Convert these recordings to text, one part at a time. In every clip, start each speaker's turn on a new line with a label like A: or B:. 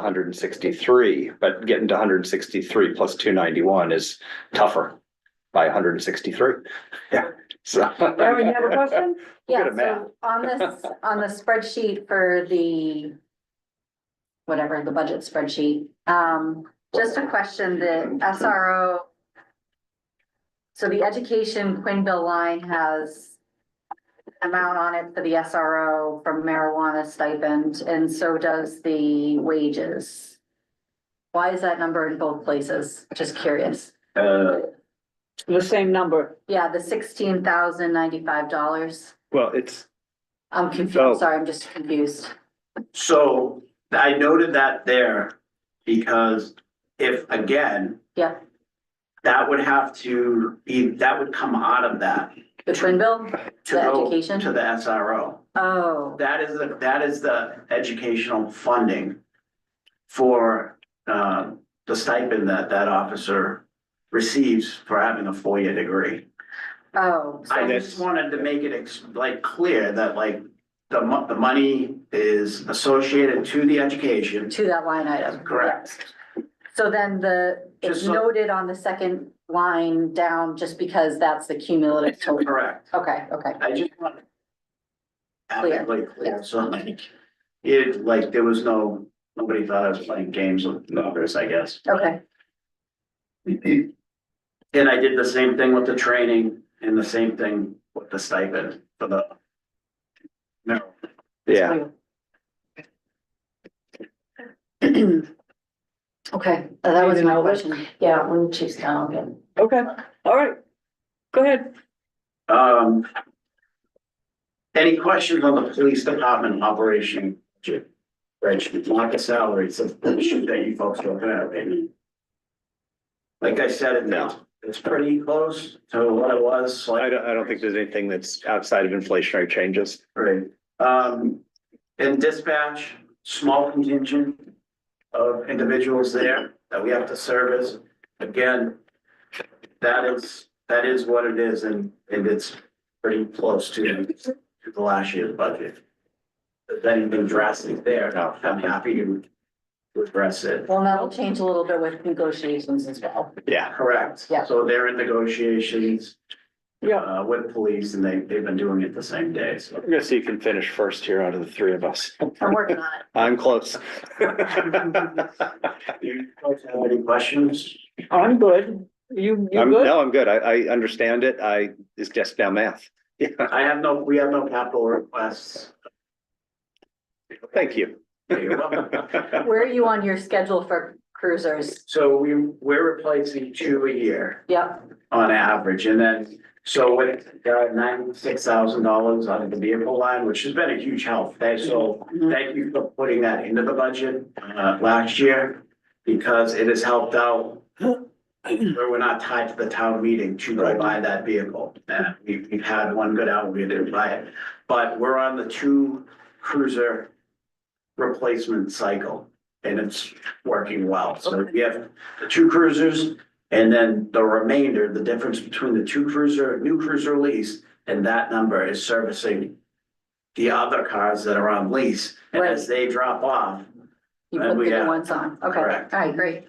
A: hundred and sixty-three, but getting to hundred and sixty-three plus two ninety-one is tougher by hundred and sixty-three. Yeah, so.
B: Mary, you have a question?
A: We'll
C: Yeah,
A: get a map.
C: so on this, on the spreadsheet for the whatever, the budget spreadsheet, um, just a question, the SRO. So the education Quinville line has amount on it for the SRO from marijuana stipend, and so does the wages. Why is that number in both places? Just curious.
D: Uh,
B: The same number.
C: Yeah, the sixteen thousand ninety-five dollars.
A: Well, it's,
C: I'm
A: Oh.
C: confused, sorry, I'm just confused.
D: so I noted that there because if, again.
C: Yeah.
D: That would have to be, that would come out of that
C: The twin bill?
D: to
C: The
D: go
C: education?
D: to the SRO.
C: Oh,
D: That is the, that is the educational funding for, uh, the stipend that that officer receives for having a four-year degree.
C: oh, so-
D: I just wanted to make it ex- like clear that like the mo- the money is associated to the education.
C: to that line item.
D: Correct.
C: So then the, it's
D: Just so-
C: noted on the second line down, just because that's the cumulative total.
D: Correct.
C: Okay, okay.
D: I just want. Adequately clear, so like, it like, there was no, nobody thought I was playing games with numbers, I guess.
C: Okay,
D: And I did the same thing with the training and the same thing with the stipend for the. No,
A: yeah,
C: okay, uh, that was
B: Maybe
C: my
B: not.
C: question. Yeah, when she's down again.
B: Okay, all right. Go ahead.
D: um. Any questions on the police department operation? budget? Rich, like a salary, so the issue that you folks don't have, maybe. Like I said, it's, it's pretty close to what it was. like-
A: I don't, I don't think there's anything that's outside of inflationary changes.
D: Right, um, in dispatch, small contingent of individuals there that we have to service. Again, that is, that is what it is and, and it's pretty close to, to the last year's budget. If anything drastic there,
A: No.
D: I'm happy to address it.
C: Well, that'll change a little bit with negotiations as well.
A: Yeah,
D: Correct.
C: Yeah.
D: So they're in negotiations,
B: Yeah,
D: uh, with police and they, they've been doing it the same day, so.
A: I'm gonna see who can finish first here out of the three of us.
C: I'm working on it.
A: I'm close.
D: You folks have any questions?
B: I'm good. You, you
A: I'm,
B: good?
A: no, I'm good. I, I understand it. I, it's just now math. Yeah,
D: I have no, we have no capital requests.
A: thank you.
D: You're welcome.
C: Where are you on your schedule for cruisers?
D: So we, we're replacing two a year
C: Yep,
D: on average, and then, so with ninety-six thousand dollars out of the vehicle line, which has been a huge help. Thanks, so thank you for putting that into the budget, uh, last year, because it has helped out where we're not tied to the town meeting to go
A: Right.
D: buy that vehicle. And we, we've had one good out, we didn't buy it, but we're on the two cruiser replacement cycle, and it's working well. So we have the two cruisers, and then the remainder, the difference between the two cruiser, new cruiser lease, and that number is servicing the other cars that are on lease, and as they drop off,
C: you
D: Uh,
C: put the
D: we
C: new
D: have-
C: ones on. Okay, all
D: Correct.
C: right, great.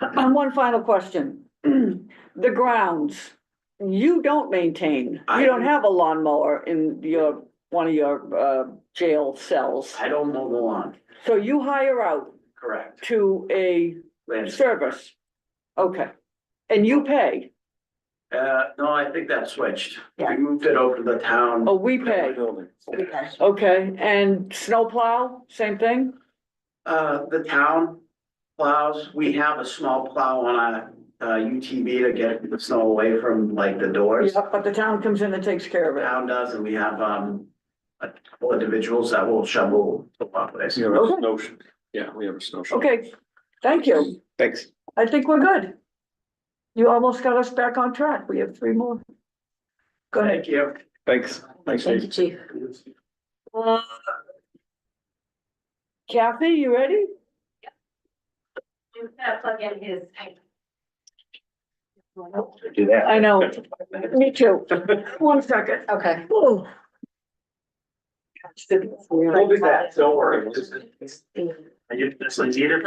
B: And one final question. The grounds, you don't maintain,
D: I-
B: you don't have a lawnmower in your, one of your, uh, jail cells.
D: I don't mow the lawn,
B: So you hire out
D: correct?
B: to a
D: Lance?
B: service. Okay. And you pay,
D: Uh, no, I think that switched.
B: Yeah. Oh.
D: We moved it over to the town.
B: or we pay. Okay, and snowplow, same thing?
D: Uh, the town plows, we have a small plow on a, uh, UTV to get the snow away from like the doors.
B: Yep, but the town comes in and takes care of
D: The
B: it.
D: town does, and we have, um, a couple individuals that will shovel the walkways.
E: You have a
B: Okay.
E: snow, sh- yeah, we have a snow. shovel.
B: Okay, thank you.
A: Thanks.
B: I think we're good. You almost got us back on track. We have three more. Go ahead.
D: Thank you.
A: Thanks.
E: Thanks,
C: Thank
E: Dave.
C: you, chief.
B: Kathy, you ready?
D: Do that.
B: I know. Me too. One second.
C: Okay,
B: Oh.
D: We'll do that, don't worry. I just, that's like theater.